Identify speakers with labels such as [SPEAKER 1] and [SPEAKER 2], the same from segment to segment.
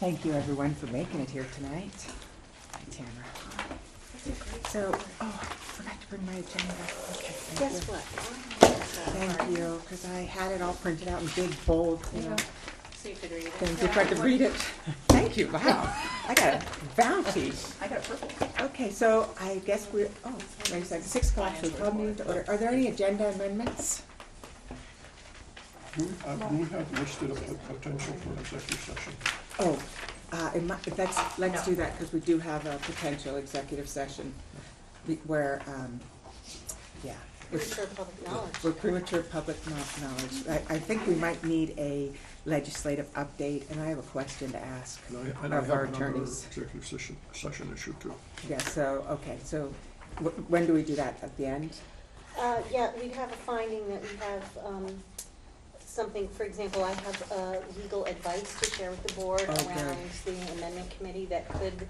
[SPEAKER 1] Thank you, everyone, for making it here tonight. Hi, Tamara. So, oh, I forgot to bring my agenda. Okay, thank you.
[SPEAKER 2] Guess what?
[SPEAKER 1] Thank you, because I had it all printed out in big bold, you know,
[SPEAKER 2] So you could read it.
[SPEAKER 1] things if I could read it. Thank you, wow, I got a bounty.
[SPEAKER 2] I got purple.
[SPEAKER 1] Okay, so I guess we're, oh, wait a second, six o'clock, so we'll need to order. Are there any agenda amendments?
[SPEAKER 3] Do we, uh, do we have listed a pot- potential for an executive session?
[SPEAKER 1] Oh, uh, it might, that's, let's do that, because we do have a potential executive session be- where, um, yeah.
[SPEAKER 2] Pretty
[SPEAKER 1] it's-
[SPEAKER 2] sure public knowledge.
[SPEAKER 1] We're premature public kno- knowledge. I, I think we might need a legislative update, and I have a question to ask.
[SPEAKER 3] And I, and I
[SPEAKER 1] Of
[SPEAKER 3] have
[SPEAKER 1] our
[SPEAKER 3] another
[SPEAKER 1] attorneys.
[SPEAKER 3] executive session, session issue too.
[SPEAKER 1] Yeah, so, okay, so wh- when do we do that? At the end?
[SPEAKER 2] Uh, yeah, we have a finding that we have, um, something, for example, I have, uh, legal advice to share with the board
[SPEAKER 1] Okay.
[SPEAKER 2] around the amendment committee that could,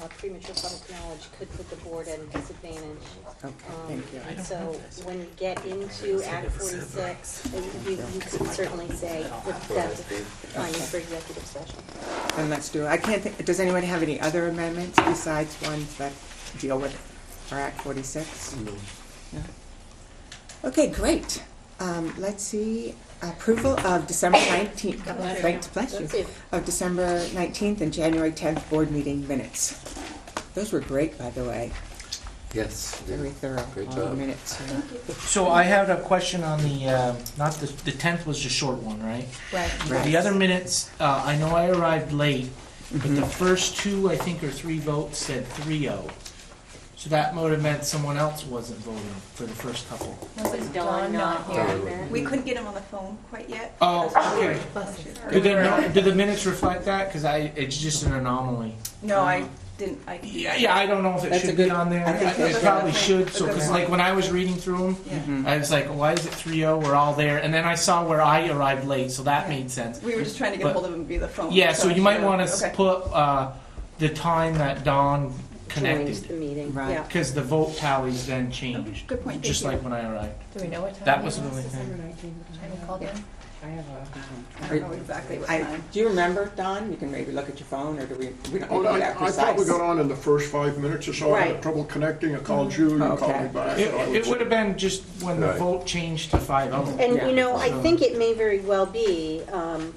[SPEAKER 2] uh, premature public knowledge could put the board at a disadvantage.
[SPEAKER 1] Okay,
[SPEAKER 2] Um,
[SPEAKER 1] thank you.
[SPEAKER 2] and So when you get into Act forty-six, uh, you, you could certainly say that that's findings for executive session.
[SPEAKER 1] Then let's do, it. I can't think, does anyone have any other amendments besides ones that deal with our Act forty-six? No. Okay, great. Um, let's see, approval of December nineteenth, thanks, bless
[SPEAKER 2] That's
[SPEAKER 1] you,
[SPEAKER 2] it.
[SPEAKER 1] of December nineteenth and January tenth board meeting minutes. Those were great, by the way,
[SPEAKER 4] Yes.
[SPEAKER 1] very thorough,
[SPEAKER 4] Great
[SPEAKER 1] all the
[SPEAKER 4] job.
[SPEAKER 1] minutes. yeah.
[SPEAKER 5] So I had a question on the, uh, not the, the tenth was the short one, right?
[SPEAKER 1] Right.
[SPEAKER 5] The other minutes, uh, I know I arrived late, but the
[SPEAKER 1] Mhm.
[SPEAKER 5] first two, I think, or three votes said three oh. So that might have meant someone else wasn't voting for the first couple.
[SPEAKER 6] Was Dawn not
[SPEAKER 4] Dawn.
[SPEAKER 6] here?
[SPEAKER 7] We couldn't get him on the phone quite yet.
[SPEAKER 5] Oh, okay. Do the, no- do the minutes reflect that? Cause I, it's just an anomaly.
[SPEAKER 7] No, I didn't, I,
[SPEAKER 5] Yeah, yeah, I don't know if it
[SPEAKER 1] That's a
[SPEAKER 5] should be
[SPEAKER 1] good-
[SPEAKER 5] on there.
[SPEAKER 1] I think
[SPEAKER 5] I-
[SPEAKER 1] that's
[SPEAKER 5] It
[SPEAKER 1] a-
[SPEAKER 5] probably should, so,
[SPEAKER 7] a good
[SPEAKER 5] cause
[SPEAKER 7] point.
[SPEAKER 5] like when I was reading through them,
[SPEAKER 7] yeah.
[SPEAKER 1] Mhm.
[SPEAKER 5] I was like, why is it three oh? We're all there. And then I saw where I arrived late, so that
[SPEAKER 7] Yeah.
[SPEAKER 5] made sense.
[SPEAKER 7] We were just trying to get
[SPEAKER 5] But-
[SPEAKER 7] hold of him via the phone.
[SPEAKER 5] Yeah, so you might want to
[SPEAKER 7] Okay.
[SPEAKER 5] put uh, the time that Dawn
[SPEAKER 2] Joins the
[SPEAKER 5] connected,
[SPEAKER 2] meeting.
[SPEAKER 1] Right.
[SPEAKER 7] Yeah.
[SPEAKER 5] because the vote tallies then
[SPEAKER 7] Okay,
[SPEAKER 5] changed,
[SPEAKER 7] Good point,
[SPEAKER 5] just
[SPEAKER 7] thank
[SPEAKER 5] like
[SPEAKER 7] you.
[SPEAKER 5] when I arrived.
[SPEAKER 6] Do we know what time?
[SPEAKER 5] That
[SPEAKER 6] it
[SPEAKER 5] was the only thing.
[SPEAKER 6] I haven't called in.
[SPEAKER 1] I have a.
[SPEAKER 7] I don't know exactly what
[SPEAKER 1] I-
[SPEAKER 7] time.
[SPEAKER 1] do you remember, Don? You can maybe look at your phone, or do we, we don't need
[SPEAKER 3] Oh,
[SPEAKER 1] to
[SPEAKER 3] I,
[SPEAKER 1] be that
[SPEAKER 3] I
[SPEAKER 1] precise?
[SPEAKER 3] thought we got on in the first five minutes or so, I
[SPEAKER 2] Right.
[SPEAKER 3] had trouble connecting, I called you, you called
[SPEAKER 1] Okay.
[SPEAKER 3] me back.
[SPEAKER 5] It,
[SPEAKER 3] so I
[SPEAKER 5] it
[SPEAKER 3] was-
[SPEAKER 5] would have been just when the
[SPEAKER 4] Right.
[SPEAKER 5] vote changed to five oh.
[SPEAKER 2] And
[SPEAKER 1] Yeah.
[SPEAKER 2] you know, I
[SPEAKER 5] So-
[SPEAKER 2] think it may very well be. Um,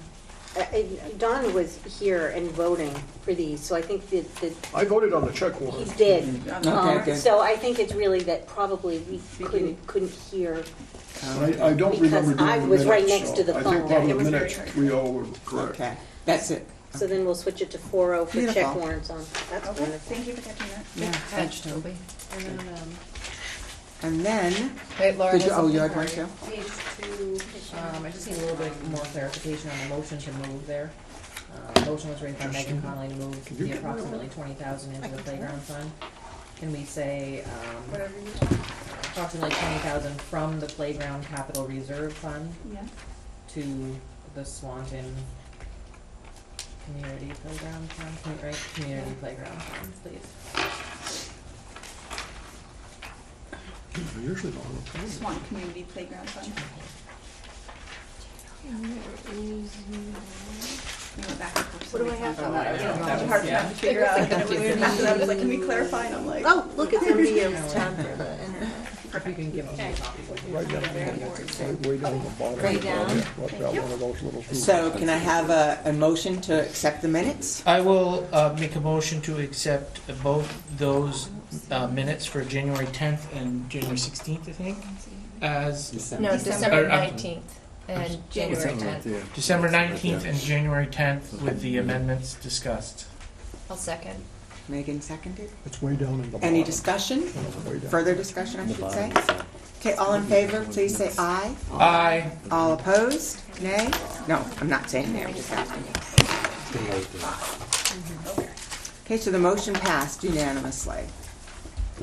[SPEAKER 2] I- I- Don was here and voting for these, so I think that, that
[SPEAKER 3] I voted on the check
[SPEAKER 2] he
[SPEAKER 3] warrant.
[SPEAKER 2] did.
[SPEAKER 7] Yeah,
[SPEAKER 1] Okay,
[SPEAKER 2] Um,
[SPEAKER 1] good.
[SPEAKER 2] so I think it's really that probably we
[SPEAKER 7] Beginning.
[SPEAKER 2] couldn't couldn't hear.
[SPEAKER 3] And I, I don't
[SPEAKER 2] Because
[SPEAKER 3] remember doing
[SPEAKER 2] I
[SPEAKER 3] the
[SPEAKER 2] was right
[SPEAKER 3] minutes,
[SPEAKER 2] next
[SPEAKER 3] so
[SPEAKER 2] to the
[SPEAKER 3] I
[SPEAKER 2] phone.
[SPEAKER 3] think probably
[SPEAKER 7] It was
[SPEAKER 3] the
[SPEAKER 7] very
[SPEAKER 3] minutes,
[SPEAKER 7] hard.
[SPEAKER 3] three oh were correct.
[SPEAKER 1] Okay, that's it.
[SPEAKER 2] So then we'll switch it to four oh for check
[SPEAKER 1] Beautiful.
[SPEAKER 2] warrants on. That's
[SPEAKER 7] Okay,
[SPEAKER 2] wonderful.
[SPEAKER 7] thank you for catching that.
[SPEAKER 1] Yeah,
[SPEAKER 6] Catch,
[SPEAKER 1] thanks, Toby.
[SPEAKER 6] Toby. And then, um,
[SPEAKER 1] And then,
[SPEAKER 6] Wait, Laura.
[SPEAKER 1] Did you-
[SPEAKER 6] has
[SPEAKER 1] oh, you
[SPEAKER 6] something
[SPEAKER 1] had
[SPEAKER 6] for
[SPEAKER 1] one,
[SPEAKER 6] you. Page two, um, I just need a little bit more clarification on the motion to move there. Uh, motion was written by Megan Conley to move
[SPEAKER 3] you
[SPEAKER 6] the
[SPEAKER 3] get rid of
[SPEAKER 6] approximately twenty thousand into the playground fund. Can we say, um,
[SPEAKER 7] Whatever you want.
[SPEAKER 6] approximately twenty thousand from the playground capital reserve fund
[SPEAKER 7] Yeah.
[SPEAKER 6] to the Swanton community playground fund, commu- right, community playground fund, please?
[SPEAKER 3] They're Usually not on the phone.
[SPEAKER 7] Swan Community Playground Fund. We went back and forth so
[SPEAKER 2] What do
[SPEAKER 7] many
[SPEAKER 2] I have?
[SPEAKER 7] times on that. It
[SPEAKER 6] Yeah.
[SPEAKER 7] was a hard time to figure out. And when we were back to that, I was like, can we clarify? And I'm like.
[SPEAKER 2] Oh, look, it's under you.
[SPEAKER 6] If you can give me a copy.
[SPEAKER 3] Right down, right way down the bottom. Right down. Like that, one of those little.
[SPEAKER 1] so can I have a, a motion to accept the minutes?
[SPEAKER 5] I will uh, make a motion to accept both those uh, minutes for January tenth and January sixteenth, I think, as December
[SPEAKER 6] No, December
[SPEAKER 5] Or, uh,
[SPEAKER 6] nineteenth and January tenth.
[SPEAKER 5] December nineteenth and January tenth with the amendments discussed.
[SPEAKER 6] I'll second.
[SPEAKER 1] Megan seconded.
[SPEAKER 3] It's way down in the bottom.
[SPEAKER 1] Any discussion?
[SPEAKER 3] Way down.
[SPEAKER 1] Further discussion, I should say? Okay, all in favor, please say aye.
[SPEAKER 5] Aye.
[SPEAKER 1] All opposed? Nay? No, I'm not saying nay, I'm just asking. Okay, so the motion passed unanimously.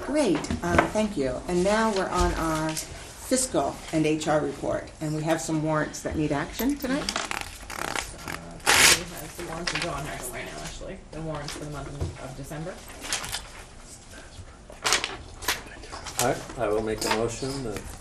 [SPEAKER 1] Great, um, thank you. And now we're on our fiscal and HR report, and we have some warrants that need action tonight.
[SPEAKER 6] The warrants are drawn right away now, actually. The warrants for the month of- of December.
[SPEAKER 4] I, I will make a motion that